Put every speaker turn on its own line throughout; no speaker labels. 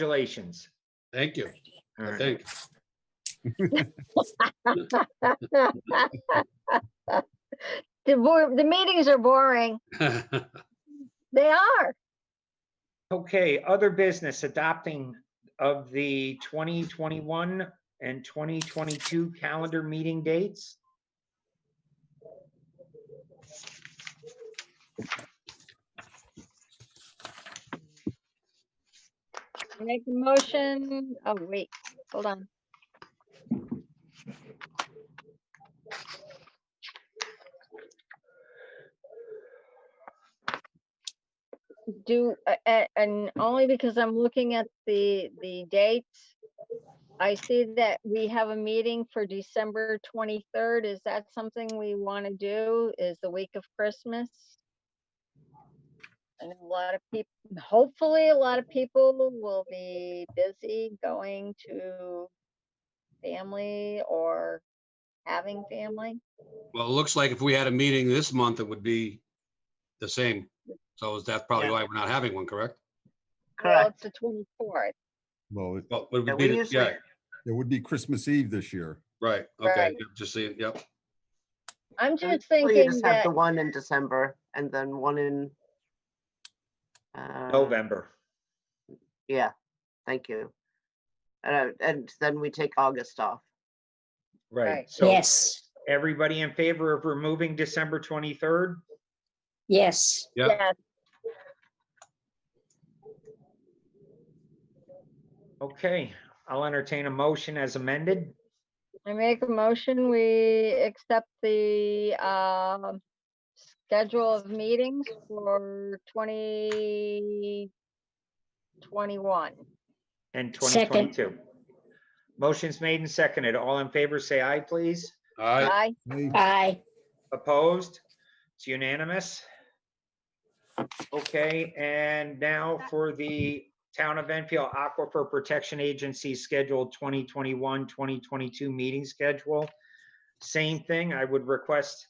Congratulations.
Thank you,
All
I
right.
think.
The bo- the meetings are boring. They are.
Okay, other business adopting of the 2021 and 2022 calendar meeting dates.
Make a motion. Oh, wait, hold on. Do, a- a- and only because I'm looking at the, the dates. I see that we have a meeting for December 23rd. Is that something we want to do? Is the week of Christmas? And a lot of people, hopefully a lot of people will be busy going to family or having family.
Well, it looks like if we had a meeting this month, it would be the same. So is that probably why we're not having one, correct?
Well, it's the twenty-fourth,
Well, it
Well,
Yeah,
it would be,
we
the-
usually-
yeah,
it would be Christmas Eve this year.
right, okay,
Right.
yep, just see it, yep.
I'm just
Well, you
thinking
just have
that,
The one in December and then one in. uh,
November.
Yeah, thank you. And, uh, and then we take August off.
Right,
Right.
so
Yes,
everybody in favor of removing December 23rd?
yes,
Yep.
yes,
Okay, I'll entertain a motion as amended.
I make a motion, we accept the, um, schedule of meetings for twenty twenty-one.
And
Second.
2022. Motion's made and seconded. All in favor, say aye, please.
All right,
Aye,
Hey,
aye,
Opposed? It's unanimous. Okay, and now for the Town of Enfield Aquifer Protection Agency scheduled 2021, 2022 meeting schedule. Same thing, I would request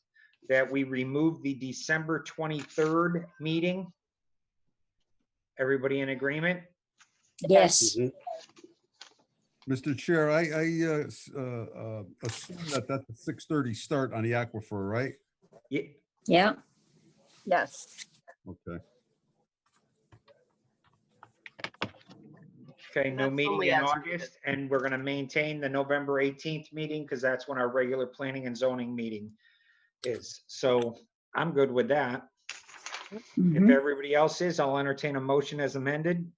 that we remove the December 23rd meeting. Everybody in agreement?
yes,
Mhm.
Mr. Chair, I, I uh, s- uh, uh, assume that that's a six thirty start on the aquifer, right?
Ye-
yeah,
yes,
Okay.
Okay, no
That's
meeting
only
in
as needed.
August, and we're gonna maintain the November 18th meeting, because that's when our regular planning and zoning meeting is. So I'm good with that. If
mhm,
everybody else is, I'll entertain a motion as amended.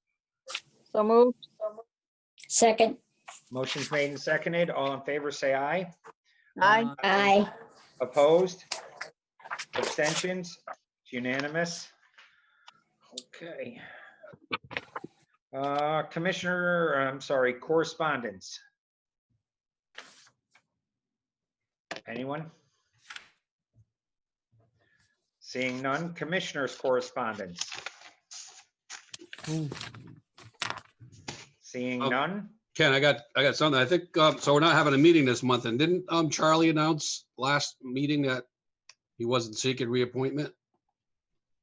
so move,
second,
Motion's made and seconded. All in favor, say aye.
aye,
aye,
Opposed? Abstentions? It's Unanimous? Okay. Uh, Commissioner, I'm sorry, correspondence. Anyone? Seeing none, Commissioners' correspondence. Seeing
Oh.
none?
Ken, I got, I got something, I think, um, so we're not having a meeting this month, and didn't, um, Charlie announce last meeting that he wasn't seeking reappointment?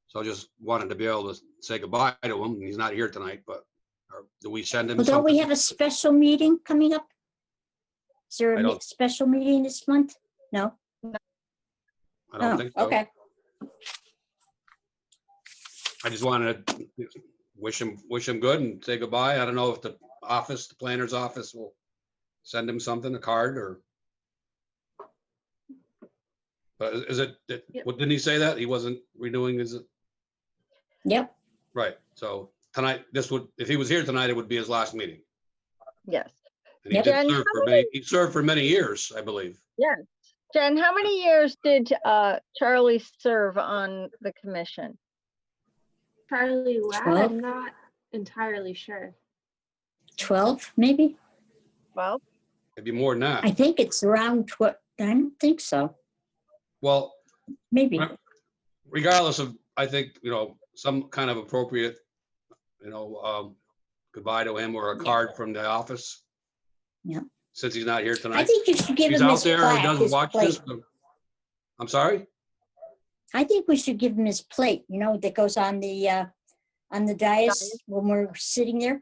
So I just wanted to be able to say goodbye to him, he's not here tonight, but, or do we send him
well, don't we
something?
have a special meeting coming up? Is there
I
a
don't-
mi- special meeting this month? No?
I don't
Oh,
think so.
okay,
I just wanted to wish him, wish him good and say goodbye. I don't know if the office, the planner's office will send him something, a card or. But is- is it, did-
Yep.
what, didn't he say that? He wasn't renewing his,
yep,
right, so tonight, this would, if he was here tonight, it would be his last meeting.
yes.
And he
Yep.
did
And
serve
how
for many, he served for many years, I believe.
Yes. Jen, how many years did uh, Charlie serve on the commission?
Charlie Ladd,
Twelve?
I'm not entirely sure.
twelve, maybe?
Well,
It'd be more than
I
that.
think it's around what, I don't think so,
Well,
maybe,
Right. regardless of, I think, you know, some kind of appropriate, you know, um, goodbye to him or a
Yeah.
card from the office.
Yeah.
Since he's not here
I
tonight.
think you should give
He's
him
out
his
there or
plaque,
doesn't
his
watch
plate.
this. but- I'm sorry?
I think we should give him his plate, you know, that goes on the, uh, on the dais when we're sitting there,